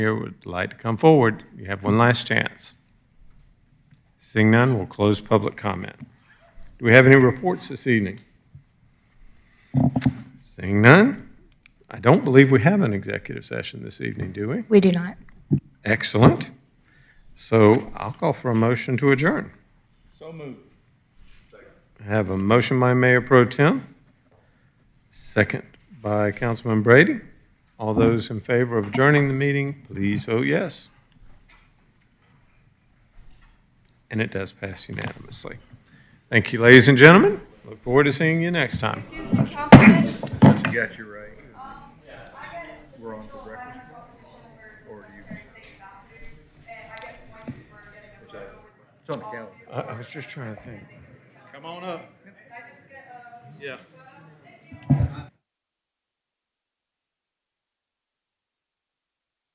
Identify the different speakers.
Speaker 1: here would like to come forward, you have one last chance. Seeing none, we'll close public comment. Do we have any reports this evening? Seeing none, I don't believe we have an executive session this evening, do we?
Speaker 2: We do not.
Speaker 1: Excellent. So I'll call for a motion to adjourn.
Speaker 3: So moved.
Speaker 1: I have a motion by Mayor Pro Tem, second by Councilman Brady. All those in favor of adjourning the meeting, please vote yes. And it does pass unanimously. Thank you, ladies and gentlemen. Look forward to seeing you next time.
Speaker 4: Excuse me, Councilman.
Speaker 3: You got your right. We're on for breakfast. Or do you? It's on the calendar.
Speaker 1: I I was just trying to think.
Speaker 3: Come on up.
Speaker 1: Yeah.